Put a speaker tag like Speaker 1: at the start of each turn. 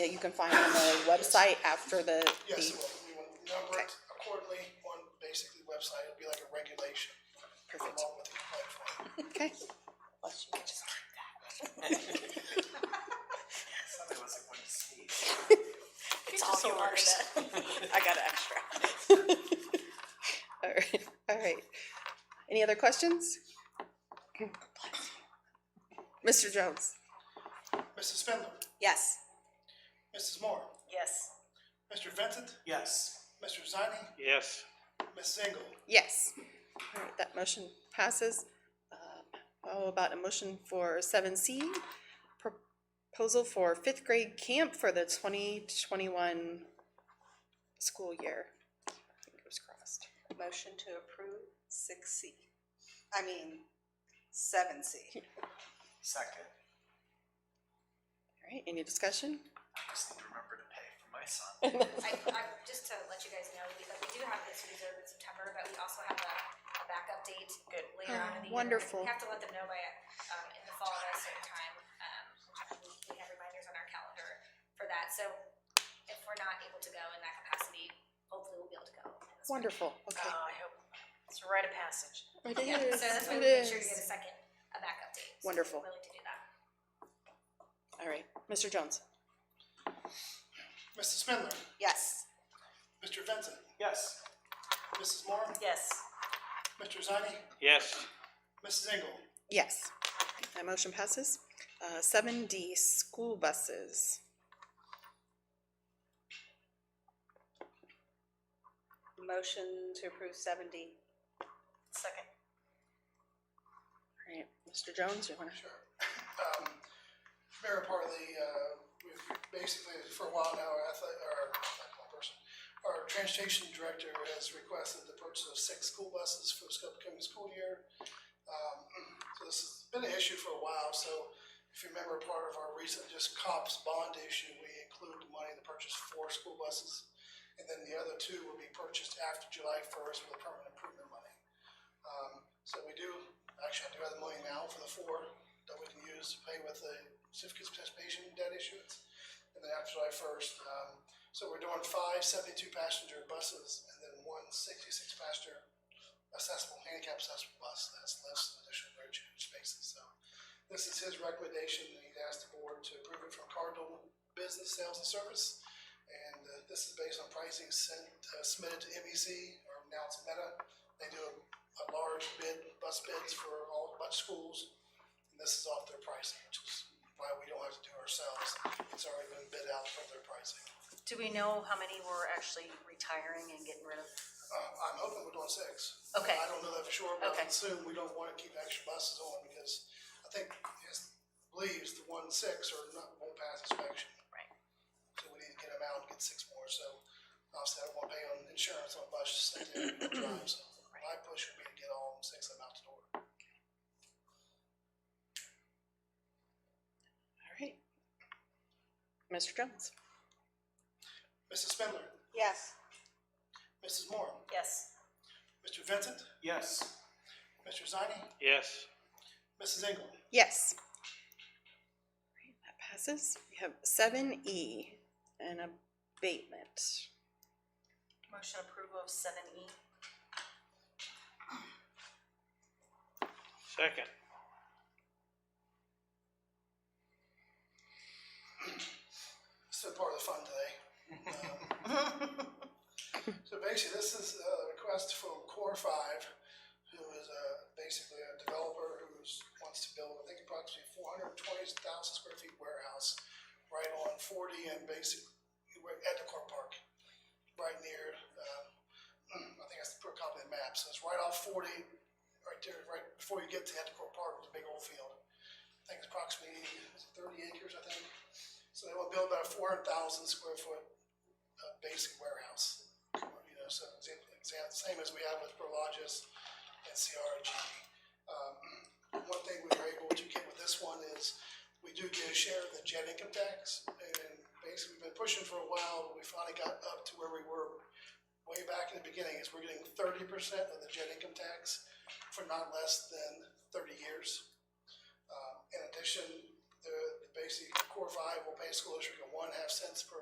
Speaker 1: that you can find on the website after the,
Speaker 2: Yes, it
Speaker 1: the,
Speaker 2: will. We will number it accordingly on basically the website. It'll be like a regulation
Speaker 1: perfect,
Speaker 2: along with the platform.
Speaker 1: okay?
Speaker 3: Somebody was going to sneeze.
Speaker 1: It's all yours. I got an extra. All right, all right. Any other questions? Mr. Jones?
Speaker 2: Mrs. Spindler,
Speaker 1: Yes.
Speaker 2: Mrs. Moore,
Speaker 4: Yes.
Speaker 2: Mr. Vincent,
Speaker 3: Yes.
Speaker 2: Mr. Zani,
Speaker 5: yes,
Speaker 2: Mrs. Engel.
Speaker 1: Yes. All right, that motion passes. Um, How about a motion for seven C? Proposal for fifth grade camp for the twenty twenty-one school year. Fingers crossed.
Speaker 4: Motion to approve six C, I mean, seven C.
Speaker 3: Second,
Speaker 1: All right, any discussion?
Speaker 3: I just need to remember to pay for my son.
Speaker 6: I, I, just to let you guys know, we, like, we do have this reserved in September, but we also have a, a backup date later
Speaker 1: Oh,
Speaker 6: on in the year.
Speaker 1: wonderful.
Speaker 6: We have to let them know by, um, in the fall at a certain time, um, we, we have reminders on our calendar for that, so if we're not able to go in that capacity, hopefully we'll be able to go. in the spring.
Speaker 1: Wonderful, okay.
Speaker 4: Oh, I hope, it's a rite of passage.
Speaker 1: It
Speaker 6: Um, Yeah,
Speaker 1: is,
Speaker 6: so that's why
Speaker 1: it
Speaker 6: we make sure you
Speaker 1: is.
Speaker 6: get a second, a backup date. so if you're
Speaker 1: Wonderful.
Speaker 6: Willing to do that.
Speaker 1: All right, Mr. Jones?
Speaker 2: Mrs. Spindler,
Speaker 4: Yes.
Speaker 2: Mr. Vincent,
Speaker 3: Yes.
Speaker 2: Mrs. Moore,
Speaker 4: Yes.
Speaker 2: Mr. Zani,
Speaker 5: yes.
Speaker 2: Mrs. Engel.
Speaker 1: Yes. That motion passes. Uh, seven D, school buses.
Speaker 4: Motion to approve seven D. Second.
Speaker 1: All right, Mr. Jones, you wanna?
Speaker 2: Sure. Um, Mayor Parley, uh, we've basically, for a while now, our athletic, our, athletic person, our transportation director has requested the purchase of six school buses for this upcoming school year. Um, so this has been an issue for a while, so if you remember part of our recent just cops bond issue, we included the money to purchase four school buses. And then the other two will be purchased after July first with permanent improvement money. Um, so we do, actually, I do have the money now for the four that we can use to pay with the certificates of participation debt issuance. And then after July first, um, so we're doing five seventy-two passenger buses and then one sixty-six passenger accessible, handicap accessible bus that's less than additional road change spaces, so. This is his recommendation, and he's asked the board to approve it from Cardinal Business Sales and Service. And, uh, this is based on pricing sent, uh, submitted to MEC, or now it's Meta. They do a a large bid, bus bids for all a bunch of schools. And this is off their pricing, which is why we don't have to do it ourselves. It's already been bid out for their pricing.
Speaker 7: Do we know how many were actually retiring and getting rid of?
Speaker 2: Uh, I'm hoping we're doing six.
Speaker 7: Okay.
Speaker 2: I don't know that for sure, but I
Speaker 7: Okay.
Speaker 2: assume we don't wanna keep extra buses on because I think his believes the one six are not, won't pass inspection.
Speaker 7: Right.
Speaker 2: So we need to get them out and get six more, so obviously I don't wanna pay on insurance on buses that they don't drive, so my push would be to get all six of them out the door.
Speaker 1: All right. Mr. Jones?
Speaker 2: Mrs. Spindler,
Speaker 4: Yes.
Speaker 2: Mrs. Moore,
Speaker 4: Yes.
Speaker 2: Mr. Vincent,
Speaker 3: Yes.
Speaker 2: Mr. Zani,
Speaker 5: Yes.
Speaker 2: Mrs. Engel.
Speaker 1: Yes. All right, That passes. We have seven E, an abatement.
Speaker 7: Motion approval of seven E.
Speaker 5: Second,
Speaker 2: It's been part of the fun today. Um, So basically, this is a request from Core Five, who is uh, basically a developer who wants to build, I think approximately four hundred and twenty thousand square feet warehouse right on forty and basic, we're at the core park, right near, um, I think I have to put a copy of the map, so it's right off forty, right there, right before you get to Ethical Park, the big old field. I think it's approximately is it thirty acres, I think. So they will build about a four hundred thousand square foot uh, basic warehouse. You know, so it's in- it's the same as we have with Prologis and CRG. Um, one thing we were able to get with this one is we do get a share of the jet income tax, and basically we've been pushing for a while. but We finally got up to where we were way back in the beginning. Is we're getting thirty percent of the jet income tax for not less than thirty years. Um, in addition, the, basically, core five will pay school district a one half cents per